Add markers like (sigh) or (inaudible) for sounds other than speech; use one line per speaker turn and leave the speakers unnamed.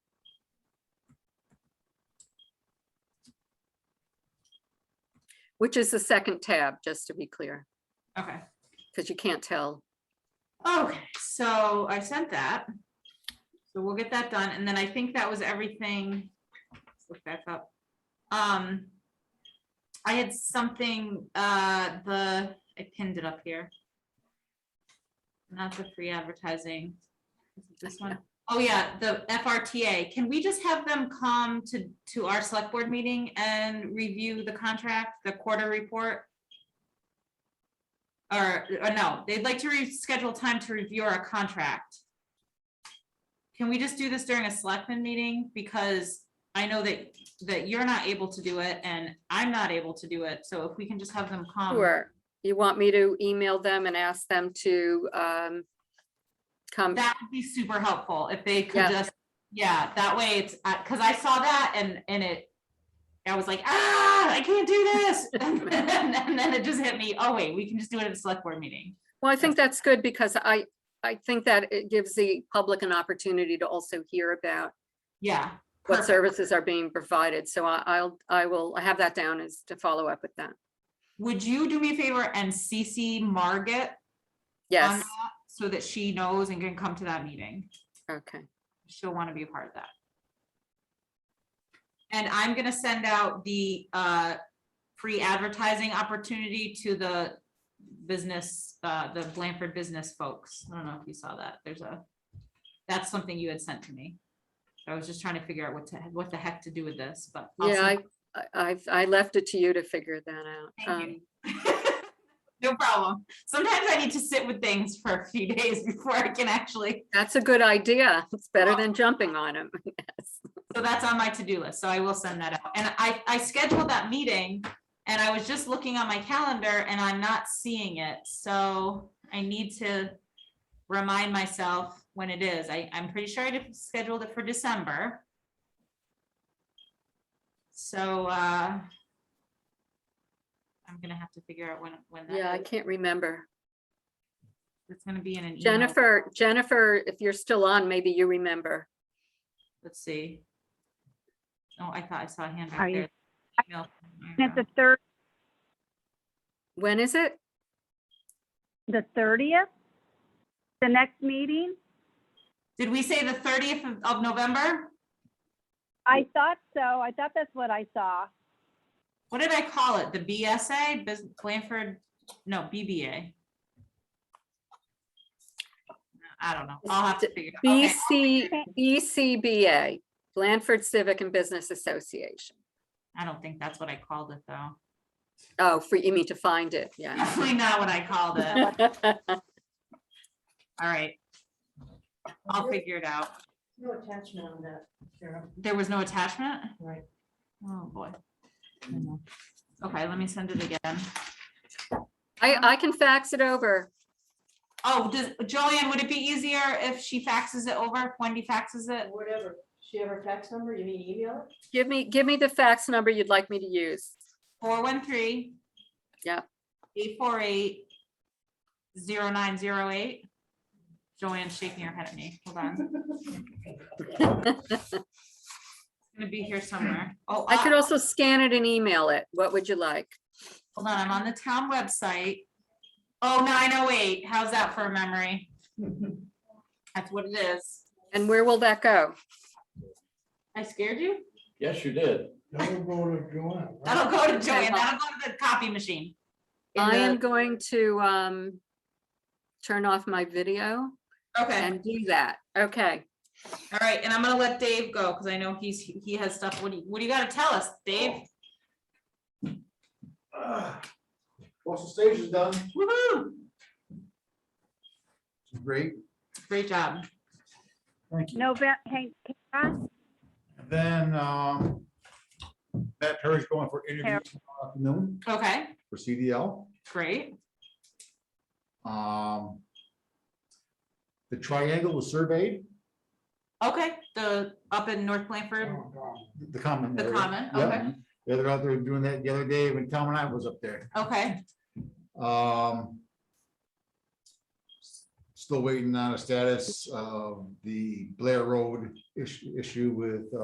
Which is the second tab, just to be clear,
Okay.
because you can't tell.
Okay, so I sent that. So we'll get that done. And then I think that was everything. Let's look back up. Um, I had something, uh, the, I pinned it up here. Not the free advertising. Is it This one? Oh, yeah, the FRTA. Can we just have them come to, to our select board meeting and review the contract, the quarter report? Or, or no, they'd like to reschedule time to review our contract. Can we just do this during a selectman meeting? Because I know that, that you're not able to do it and I'm not able to do it. So if we can just have them come.
Sure. You want me to email them and ask them to um, come?
That would be super helpful if they could
Yeah.
just, yeah, that way it's, uh, cause I saw that and, and it, I was like, ah, I can't do this. (laughs) And then, and then it just hit me, oh wait, we can just do it at a select board meeting.
Well, I think that's good because I, I think that it gives the public an opportunity to also hear about
Yeah.
what
perfect.
services are being provided. So I- I'll, I will I have that down as to follow up with that.
Would you do me a favor and CC Margaret on
Yes,
that so that she knows and can come to that meeting?
okay.
she'll want to be a part of that. And I'm gonna send out the uh free advertising opportunity to the business, uh the Blanford business folks. I don't know if you saw that. There's a, that's something you had sent to me. I was just trying to figure out what to, what the heck to do with this, but. I'll
Yeah, I,
send-
I, I've- I left it to you to figure that out.
Thank
Um,
you. (laughs) No problem. Sometimes I need to sit with things for a few (laughs) days before I can actually,
That's a good idea. It's better than jumping on them.
So that's on my to-do list, so I will send that out. And I, I scheduled that meeting and I was just looking on my calendar and I'm not seeing it, so I need to remind myself when it is. I, I'm pretty sure I did- scheduled it for December. So, uh, I'm gonna have to figure out when, when
Yeah, I
that is.
can't remember.
It's gonna be in an email.
Jennifer, Jennifer, if you're still on, maybe you remember.
Let's see. Oh, I thought I saw a hand
Are
back
you-
there. Email from
At
Ira.
the third,
When is it?
the thirtieth, the next meeting?
Did we say the thirtieth of November?
I thought so. I thought that's what I saw.
What did I call it? The BSA, Bus- Blanford, no, BBA? I don't know. I'll have to figure. it out. Okay.
BC, BCBA, Blandford Civic and Business Association.
I don't think that's what I called it, though. (laughs)
Oh, for, you mean to find it, yeah.
Definitely not what I
(laughs)
called it. All right. I'll figure it out.
No attachment on that, Sarah.
There was no attachment?
Right.
Oh, boy. Okay, let me send it again.
I, I can fax it over.
Oh, does, Joanne, would it be easier if she faxes it over, if Wendy faxes it?
Whatever. She have her fax number? You mean email? it?
Give me, give me the fax number you'd like me to use.
Four one three.
Yep.
Eight four eight. Zero nine zero eight. Joanne's shaking her head at me. Hold on.
(laughs)
It's Gonna be here somewhere. Oh,
I could
uh,
also scan it and email it. What would you like?
hold on. I'm on the town website. Oh, nine oh eight. How's that for a memory? That's what it is.
And where will that go?
I scared you?
Yes, you did.
That'll go to Joanne. right?
That'll go to
(laughs)
Joanne.
well-
That'll go to the copy machine. In
I
the-
am going to, um, turn off my video
Okay.
and do that. Okay.
All right, and I'm gonna let Dave go, because I know he's, he has stuff, what do you, what do you gotta tell us, Dave?
Ah, Coastal Station's done.
Woo-hoo!
Great.
Great job.
Thank
November, hang, Kara?
Then, um, Matt Perry's going for interview tomorrow afternoon
Okay,
for CDL.
great.
Um, the triangle was surveyed.
Okay, the, up in North Blanford,
The common.
The
area.
common,
Yeah.
okay.
The other, out there doing that the other day when Tom and I was up there.
okay,
Um. Still waiting on a status of the Blair Road issue, issue with, uh,